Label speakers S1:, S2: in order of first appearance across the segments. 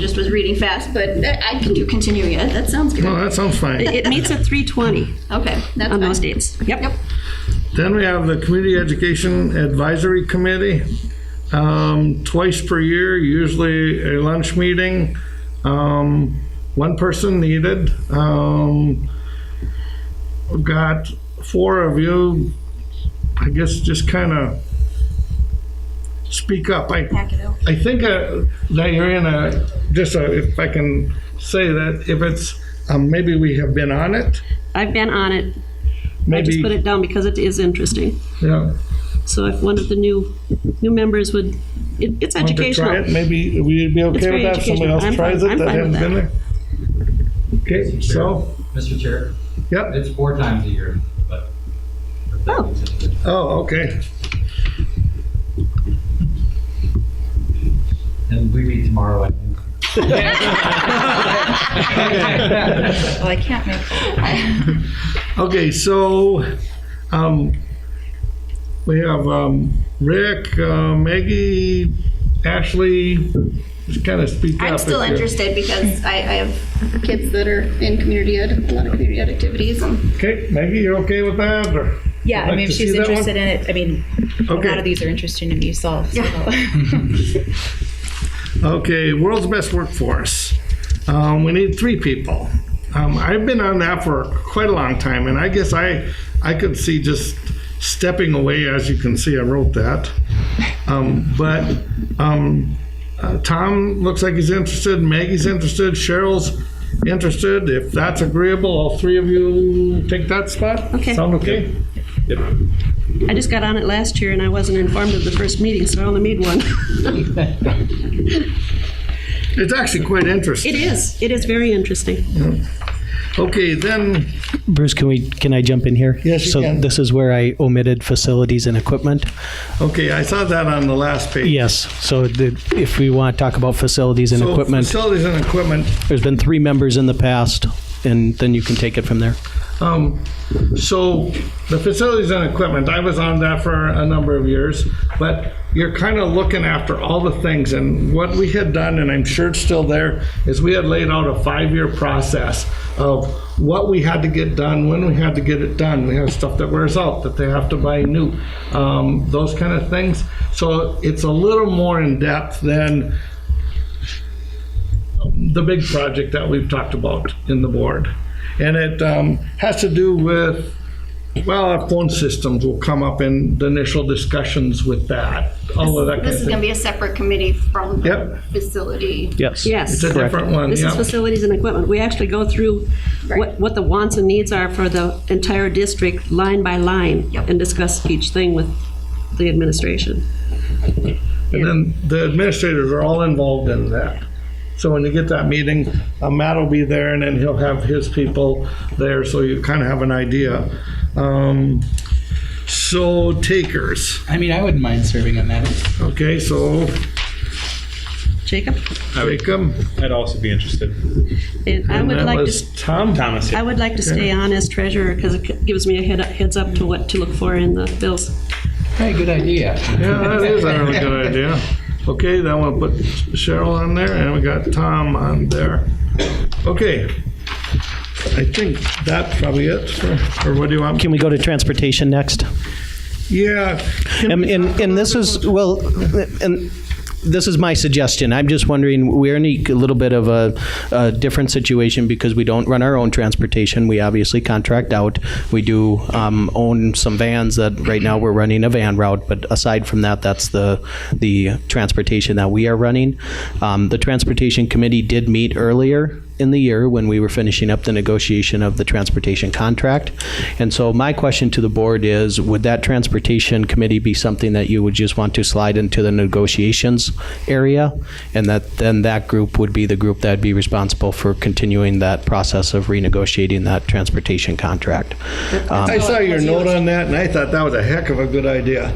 S1: just was reading fast, but I I can do continue yet. That sounds good.
S2: Well, Oh, that sounds fine.
S3: It meets at 3:20
S1: Okay, that's
S3: on those
S1: fine.
S3: dates. Yep.
S2: Then we have the Community Education Advisory Committee. Um, Twice per year, usually a lunch meeting. Um, One person needed. Um, We've got four of you, I guess, just kind of speak up. I
S1: Pack it out.
S2: I think uh, that you're in a, just uh, if I can say that, if it's, um, maybe we have been on it,
S3: I've been on it. I just put
S2: maybe,
S3: it down because it is interesting.
S2: yeah.
S3: So if one of the new, new members would, it- it's
S2: Want to try
S3: educational.
S2: it? Maybe we'd be okay with
S3: very
S2: that, somebody
S3: educational.
S2: else
S3: I'm
S2: tries
S3: fine-
S2: it
S3: I'm
S2: that hasn't
S3: fine with
S2: been there? Okay, so,
S4: Mr. Chair,
S2: yep,
S4: it's four times a year, but.
S3: Oh.
S2: oh, okay,
S4: And we meet tomorrow, I think.
S5: Well, I can't make
S2: okay, so, um, we have, um, Rick, uh, Maggie, Ashley, just kind of speak up.
S1: I'm
S2: if
S1: still
S2: you're-
S1: interested because I, I have kids that are in community ed, a lot of community ed activities and
S2: Okay, Maggie, you're okay with that, or?
S5: Yeah,
S2: I'd
S5: I
S2: like
S5: mean, if
S2: to see
S5: she's
S2: that one.
S5: interested in it, I mean, a lot
S2: Okay.
S5: of these are interesting to me, so. so-
S2: Okay, world's best workforce. Um, we need three people. Um, I've been on that for quite a long time, and I guess I I could see just stepping away. As you can see, I wrote that. Um, but um, uh, Tom looks like he's interested. Maggie's interested. Cheryl's interested. If that's agreeable, all three of you take that spot.
S3: Okay.
S2: Sound okay?
S3: I just got on it last year and I wasn't informed of the first meeting, so I only made one.
S2: It's actually quite interesting.
S3: It is, it is very interesting.
S2: Okay, then
S6: Bruce, can we, can I jump in here?
S2: Yes, you can.
S6: So this is where I omitted facilities and equipment.
S2: okay, I saw that on the last page.
S6: Yes, so the- if we want to talk about facilities and
S2: So
S6: equipment,
S2: Facilities and equipment.
S6: there's been three members in the past, and then you can take it from there.
S2: Um, So the facilities and equipment, I was on that for a number of years, but you're kind of looking after all the things. And what we had done, and I'm sure it's still there, is we had laid out a five-year process of what we had to get done, when we had to get it done. We have stuff that wears out, that they have to buy new, um, those kind of things. So it's a little more in-depth than the big project that we've talked about in the board. And it um, has to do with, well, our phone systems will come up in the initial discussions with that, all of that kind
S1: this
S2: of
S1: is gonna
S2: thing.
S1: be a separate committee from the
S2: Yep.
S1: facility.
S6: Yes.
S3: Yes.
S2: It's a different one,
S3: This is
S2: yeah.
S3: facilities and equipment. We actually go through what,
S1: Right.
S3: what the wants and needs are for the entire district, line by line,
S1: Yep.
S3: and discuss each thing with the administration.
S2: And then the administrators are all involved in that. So when you get that meeting, uh, Matt will be there and then he'll have his people there, so you kind of have an idea. Um, So takers,
S7: I mean, I wouldn't mind serving on that.
S2: okay, so
S3: Jacob?
S2: Jacob.
S8: I'd also be interested.
S3: And I
S2: and
S3: would
S2: that
S3: like to,
S2: was
S3: s-
S2: Tom.
S8: Thomas,
S3: I would like to stay on as treasurer because it gives me a head, heads up to what to look for in the bills.
S7: Hey, good idea.
S2: Yeah, that is a really good idea. Okay, then we'll put Cheryl on there, and we got Tom on there. Okay. I think that's probably it, for- or what do you want?
S6: Can we go to transportation next?
S2: Yeah,
S6: And, and, and this is, well, and this is my suggestion. I'm just wondering, we're in a little bit of a, a different situation because we don't run our own transportation. We obviously contract out. We do um, own some vans that, right now, we're running a van route, but aside from that, that's the, the transportation that we are running. Um, The Transportation Committee did meet earlier in the year when we were finishing up the negotiation of the transportation contract. And so my question to the board is, would that transportation committee be something that you would just want to slide into the negotiations area? And that, then that group would be the group that'd be responsible for continuing that process of renegotiating that transportation contract?
S2: I saw your note on that, and I thought that was a heck of a good idea.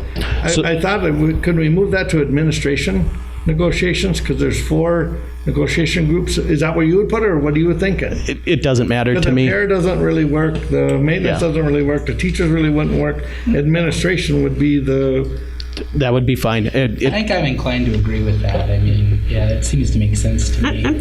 S6: So-
S2: I, I thought, that we- could we move that to administration negotiations? Because there's four negotiation groups. Is that where you would put it, or what are you thinking?
S6: It, it doesn't matter to
S2: The
S6: me.
S2: repair doesn't really work, the maintenance
S6: Yeah.
S2: doesn't really work, the teachers really wouldn't work, administration would be the,
S6: That would be fine. It- it-
S7: I think I'm inclined to agree with that. I mean, yeah, that seems to make sense to me.